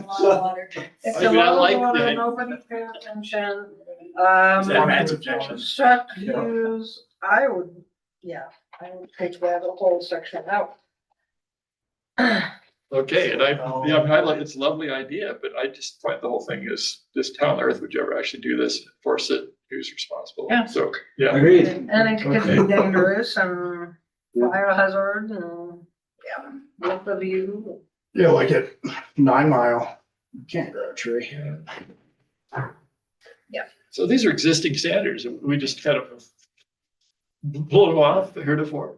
lot of water. It's I a mean, I lot like of water, that. nobody paying attention. Is that Um, Matt's objection? Chuck Yeah. Hughes, I would, yeah, I would take that whole section out. Okay, and I, yeah, I mean, I love, it's a lovely idea, but I just find the whole thing is, this town on earth would you ever actually do this, enforce it, who's responsible? Yeah. So, yeah, Agreed. And it could be Okay. dangerous and fire hazard and, yeah, look of you. Yeah, like at Nine Mile, you can't grow a tree. so these are existing standards, and we just kind of blew them off the heretofore.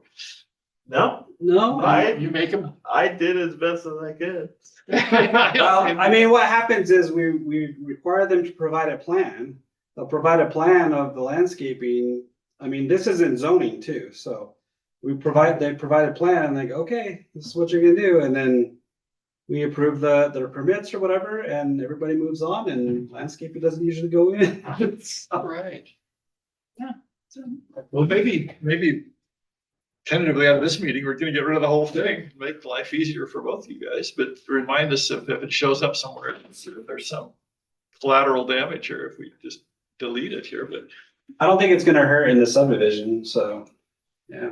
No, No. I, You make them. I did as best as I could. Well, I mean, what happens is we, we require them to provide a plan. They'll provide a plan of the landscaping. I mean, this is in zoning too, so we provide, they provide a plan and like, okay, this is what you're gonna do, and then we approve the, their permits or whatever, and everybody moves on and landscaping doesn't usually go in. All right. Yeah. Well, maybe, maybe tentatively out of this meeting, we're gonna get rid of the whole thing, make life easier for both of you guys, but remind us if, if it shows up somewhere, if there's some collateral damage or if we just delete it here, but I don't think it's gonna hurt in the subdivision, so, yeah.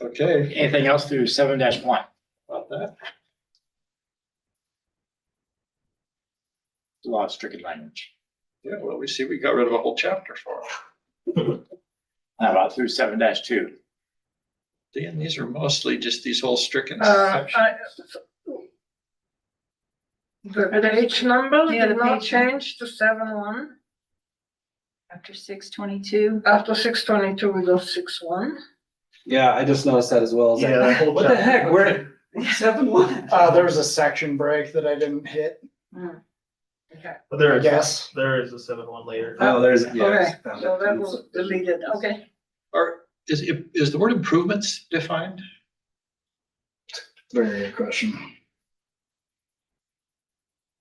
okay. Anything else through seven dash one? About that. A lot of stricken language. Yeah, well, we see, we got rid of a whole chapter for it. How about through seven dash two? Dan, these are mostly just these whole stricken Uh, sections. I. The page number Yeah, the did not page number. change to seven one. After six twenty-two. After six twenty-two, we go six one. Yeah, I just noticed that as well. It's like, What the heck, we're seven one? Uh, there was a section break that I didn't hit, Okay. But there I is, guess. there is a seven one later. Oh, there's, Okay, yeah. found so it. that was deleted, okay. Are, is, is the word improvements defined? Very good question.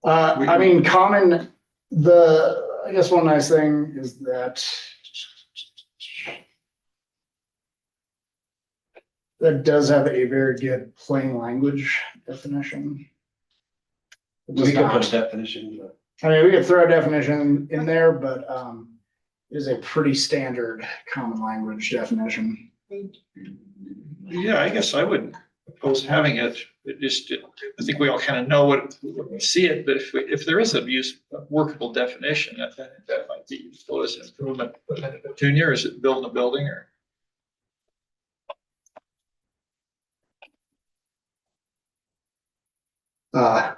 Uh, I mean, common, the, I guess one nice thing is that that does have a very good plain language definition. It does We could not- put a definition, but. I mean, we could throw a definition in there, but, um, it is a pretty standard common language definition. Yeah, I guess I wouldn't oppose having it. It just, I think we all kind of know what, what we see it, but if, we- if there is a use, a workable definition, that, that that might be useful as improvement. Junior, is it building a building or? Uh.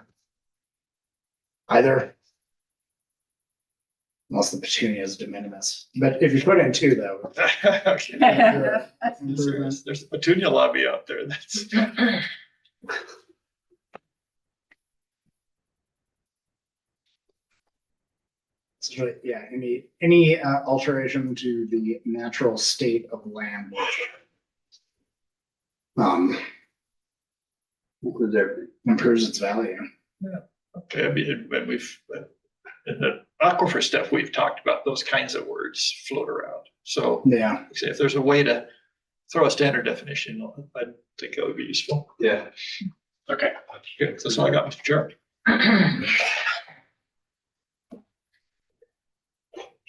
Either. Unless the petunia is de minimis, but if you put in two though. Okay. you're- There's there's a petunia lobby out there. That's, it's really- Yeah, any, any uh, alteration to the natural state of land. Um. Improves its value. okay, I mean, when we've, in the aquifer stuff, we've talked about those kinds of words float around. So Yeah, like I say, if there's a way to throw a standard definition, I think that would be useful. Yeah. Okay, good. That's all I got, Mr. Chair.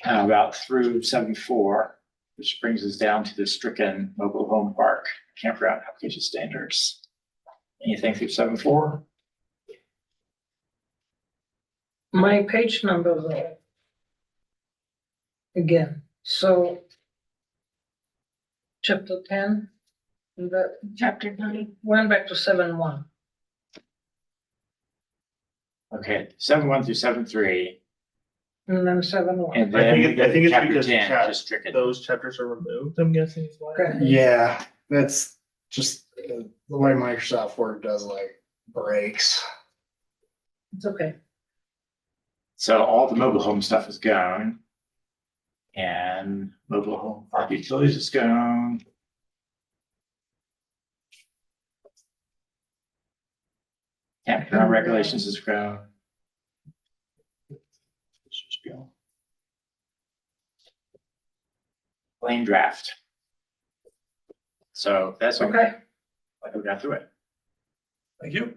How about through seven four, which brings us down to the stricken mobile home park campground application standards? Anything through seven four? My page numbers are. Again, so. Chapter ten, that Chapter thirty. went back to seven one. Okay, seven one through seven three, And then seven one. and I then think we it- go I to think it's chapter because ten, chap- just stricken. Those chapters are removed, I'm guessing is why. Okay. yeah, that's just uh, the way Microsoft Word does like breaks. It's okay. So all the mobile home stuff is gone. And mobile home park utilities is gone. Campground regulations is gone. This is gone. Plain draft. So that's okay. Okay. I go down through it. Thank you.